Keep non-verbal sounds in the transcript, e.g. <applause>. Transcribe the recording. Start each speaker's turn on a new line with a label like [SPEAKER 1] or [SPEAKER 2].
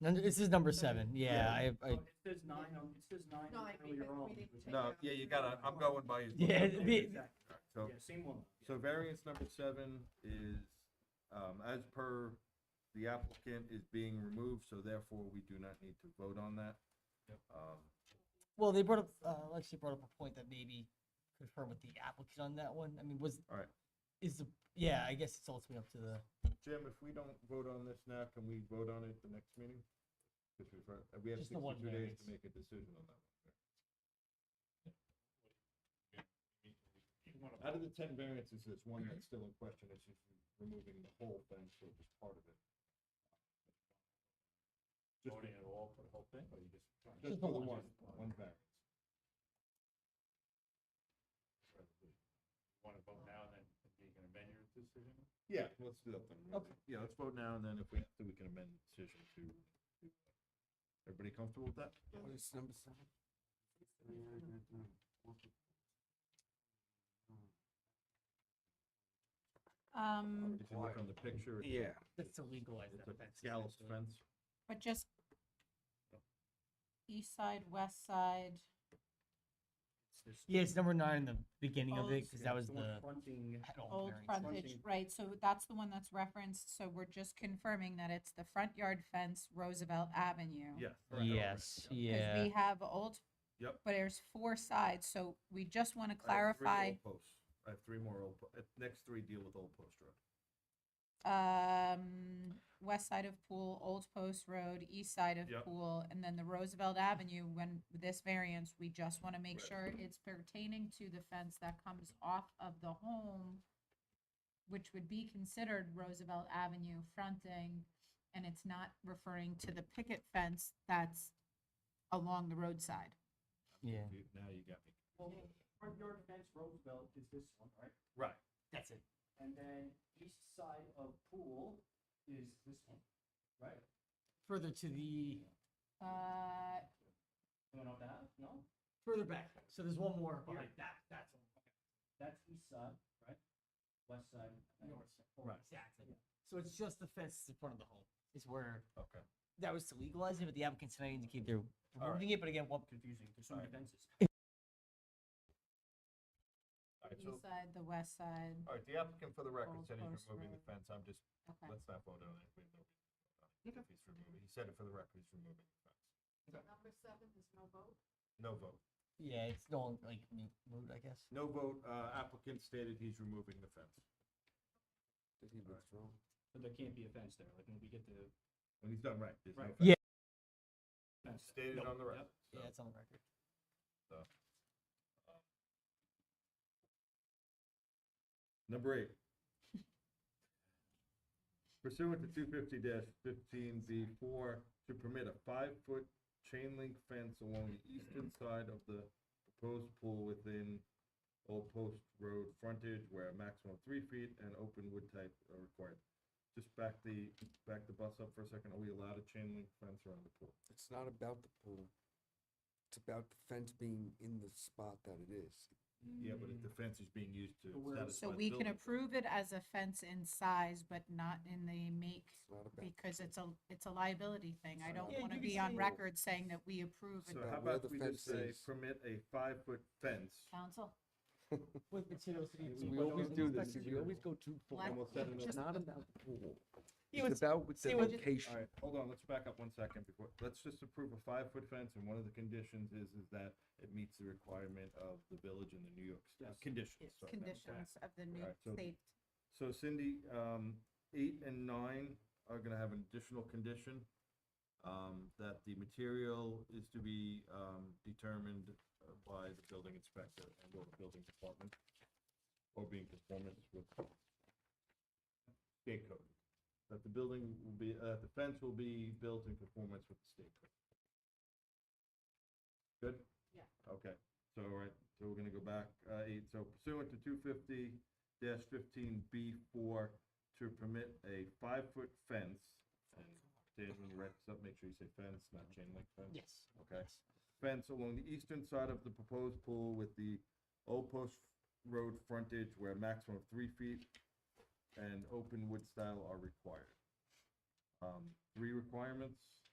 [SPEAKER 1] Nun- This is number seven, yeah, I, I,
[SPEAKER 2] Oh, It says nine on, it says nine
[SPEAKER 3] No, I agree,
[SPEAKER 2] earlier
[SPEAKER 3] but we
[SPEAKER 2] on.
[SPEAKER 3] need to take
[SPEAKER 4] No, yeah, you gotta, I'm going
[SPEAKER 1] <laughs>
[SPEAKER 4] by. his-
[SPEAKER 1] Oh, Yeah, it'd be-
[SPEAKER 2] Exactly.
[SPEAKER 4] So,
[SPEAKER 2] Yeah, same one.
[SPEAKER 4] so variance number seven is, um, as per the applicant is being removed, so therefore we do not need to vote on that. Um,
[SPEAKER 1] well, they brought up, uh, Lexi brought up a point that maybe confirm with the applicant on that one, I mean, was.
[SPEAKER 4] Alright.
[SPEAKER 1] Is the, yeah, I guess it's ultimately up to the,
[SPEAKER 4] Jim, if we don't vote on this now, can we vote on it the next meeting? Because we've, heard- we have
[SPEAKER 1] Just the one
[SPEAKER 4] sixty-two days
[SPEAKER 1] variance.
[SPEAKER 4] to make a decision on that. one. Out of the ten variances, there's one that's still in question, it's just removing the whole thing, so just part of it. Just
[SPEAKER 2] Voting at all for the whole thing, or you just?
[SPEAKER 4] Just for the one, one variance.
[SPEAKER 2] Want to vote now and then you can amend your decision?
[SPEAKER 4] Yeah, let's do that then.
[SPEAKER 1] Okay.
[SPEAKER 4] Yeah, let's vote now, and then if we have to, we can amend the decision to. Everybody comfortable with that?
[SPEAKER 5] Um,
[SPEAKER 4] If you look on the picture, it's
[SPEAKER 6] Yeah,
[SPEAKER 1] that's to legalize that
[SPEAKER 4] a
[SPEAKER 1] fence.
[SPEAKER 4] gallows fence.
[SPEAKER 5] but just east side, west side,
[SPEAKER 1] Yeah, it's number nine in the beginning of
[SPEAKER 5] Oh,
[SPEAKER 1] it, cause that was the
[SPEAKER 2] Fronting,
[SPEAKER 1] head all
[SPEAKER 5] old
[SPEAKER 1] variance.
[SPEAKER 5] frontage,
[SPEAKER 2] Fronting.
[SPEAKER 5] right, so that's the one that's referenced, so we're just confirming that it's the front yard fence Roosevelt Avenue.
[SPEAKER 4] Yes.
[SPEAKER 1] Yes,
[SPEAKER 5] Because
[SPEAKER 1] yeah,
[SPEAKER 5] we have old.
[SPEAKER 4] Yep.
[SPEAKER 5] But there's four sides, so we just want to
[SPEAKER 4] I have three
[SPEAKER 5] clarify,
[SPEAKER 4] old posts. I have three more old, po- uh, next three deal with Old Post Road.
[SPEAKER 5] um, west side of Pool, Old Post Road, east side of
[SPEAKER 4] Yep.
[SPEAKER 5] Pool, and then the Roosevelt Avenue, when this variance, we just want to make
[SPEAKER 4] Right.
[SPEAKER 5] sure it's pertaining to the fence that comes off of the home, which would be considered Roosevelt Avenue fronting, and it's not referring to the picket fence that's along the roadside.
[SPEAKER 1] yeah,
[SPEAKER 4] You- Now you got me.
[SPEAKER 2] front yard fence Roosevelt is this one, right?
[SPEAKER 4] Right.
[SPEAKER 1] that's it,
[SPEAKER 2] And then east side of pool is this one, right?
[SPEAKER 1] further to the,
[SPEAKER 5] Uh,
[SPEAKER 2] No, not that, no,
[SPEAKER 1] further back, so there's one more
[SPEAKER 2] behind
[SPEAKER 1] that, that's.
[SPEAKER 2] that's east side, right? West side. and
[SPEAKER 1] North
[SPEAKER 4] Right.
[SPEAKER 1] Exactly. So it's just the fence in front of the home is where
[SPEAKER 4] Okay.
[SPEAKER 1] that was to legalize it, but the applicants tonight indicate they're
[SPEAKER 4] right.
[SPEAKER 1] removing it, but again, what,
[SPEAKER 2] Confusing, there's so many fences.
[SPEAKER 4] All right, so,
[SPEAKER 5] east side, the west side,
[SPEAKER 4] all right, the applicant for the record
[SPEAKER 5] Old
[SPEAKER 4] said he's
[SPEAKER 5] Post
[SPEAKER 4] removing the
[SPEAKER 5] Road.
[SPEAKER 4] fence. I'm just,
[SPEAKER 5] okay.
[SPEAKER 4] let's not vote on it. We have no reason to vote on it if He's removing, he said it for the record, he's removing the fence.
[SPEAKER 3] Number seven is no vote.
[SPEAKER 4] No vote.
[SPEAKER 1] yeah, it's no longer like mo- moot, I guess.
[SPEAKER 4] No vote, uh, applicant stated he's removing the fence.
[SPEAKER 2] But there can't be a fence there, like when we get the
[SPEAKER 4] When he's done right, there's no
[SPEAKER 2] Right.
[SPEAKER 4] fence.
[SPEAKER 1] Yeah.
[SPEAKER 2] fence.
[SPEAKER 4] Stated on the record. so,
[SPEAKER 1] Yeah, it's on the record.
[SPEAKER 4] Number eight. Pursuant to two fifty fifteen B four, to permit a five-foot chain link fence along the eastern side of the proposed pool within Old Post Road frontage where a maximum of three feet and open wood type are required. Just back the, back the bus up for a second. Are we allowed a chain link fence around the pool?
[SPEAKER 6] it's not about the pool. It's about the fence being in the spot that it is.
[SPEAKER 4] Yeah, but if the fence is being used to
[SPEAKER 2] But where-
[SPEAKER 4] satisfy
[SPEAKER 5] So
[SPEAKER 4] the
[SPEAKER 5] we can
[SPEAKER 4] building-
[SPEAKER 5] approve it as a fence in size, but not in the make,
[SPEAKER 6] It's not about. the
[SPEAKER 5] because it's a,
[SPEAKER 6] fence.
[SPEAKER 5] it's a liability thing. I don't
[SPEAKER 1] Yeah,
[SPEAKER 5] wanna
[SPEAKER 1] you could
[SPEAKER 5] be on
[SPEAKER 1] say-
[SPEAKER 5] record saying that we approve it.
[SPEAKER 4] So
[SPEAKER 6] about
[SPEAKER 4] how
[SPEAKER 6] where
[SPEAKER 4] about
[SPEAKER 6] the
[SPEAKER 4] we just
[SPEAKER 6] fence
[SPEAKER 4] say,
[SPEAKER 6] is.
[SPEAKER 4] permit a five-foot fence
[SPEAKER 5] Council,
[SPEAKER 1] With materials to be.
[SPEAKER 6] So
[SPEAKER 1] obtained
[SPEAKER 6] We
[SPEAKER 1] by
[SPEAKER 6] always
[SPEAKER 1] those
[SPEAKER 6] do this,
[SPEAKER 1] inspected
[SPEAKER 6] we always go too far.
[SPEAKER 5] What?
[SPEAKER 4] Almost said it.
[SPEAKER 6] It's not about the pool.
[SPEAKER 1] Yeah,
[SPEAKER 6] It's
[SPEAKER 1] it's-
[SPEAKER 6] about with the
[SPEAKER 1] see what-
[SPEAKER 4] All
[SPEAKER 6] location.
[SPEAKER 4] right, hold on, let's back up one second before, let's just approve a five-foot fence, and one of the conditions is, is that it meets the requirement of the village and the New York State
[SPEAKER 2] Yes.
[SPEAKER 4] conditions. sorry, not-
[SPEAKER 5] conditions of the new
[SPEAKER 4] Alright, so-
[SPEAKER 5] state.
[SPEAKER 4] So Cindy, um, eight and nine are gonna have an additional condition, um, that the material is to be, um, determined uh, by the building inspector and or the building department, or being conformance with state code. That the building will be, uh, the fence will be built in conformance with the state code. Good?
[SPEAKER 3] Yeah.
[SPEAKER 4] Okay, so, all right, so we're gonna go back, uh, eight, so pursuant to two fifty, dash fifteen B four to permit a five-foot fence. and Dan, when you write this up, make sure you say fence, not chain link fence.
[SPEAKER 1] Yes.
[SPEAKER 4] Okay. Fence along the eastern side of the proposed pool with the Old Post Road frontage where a maximum of three feet and open wood style are required. Um, three requirements.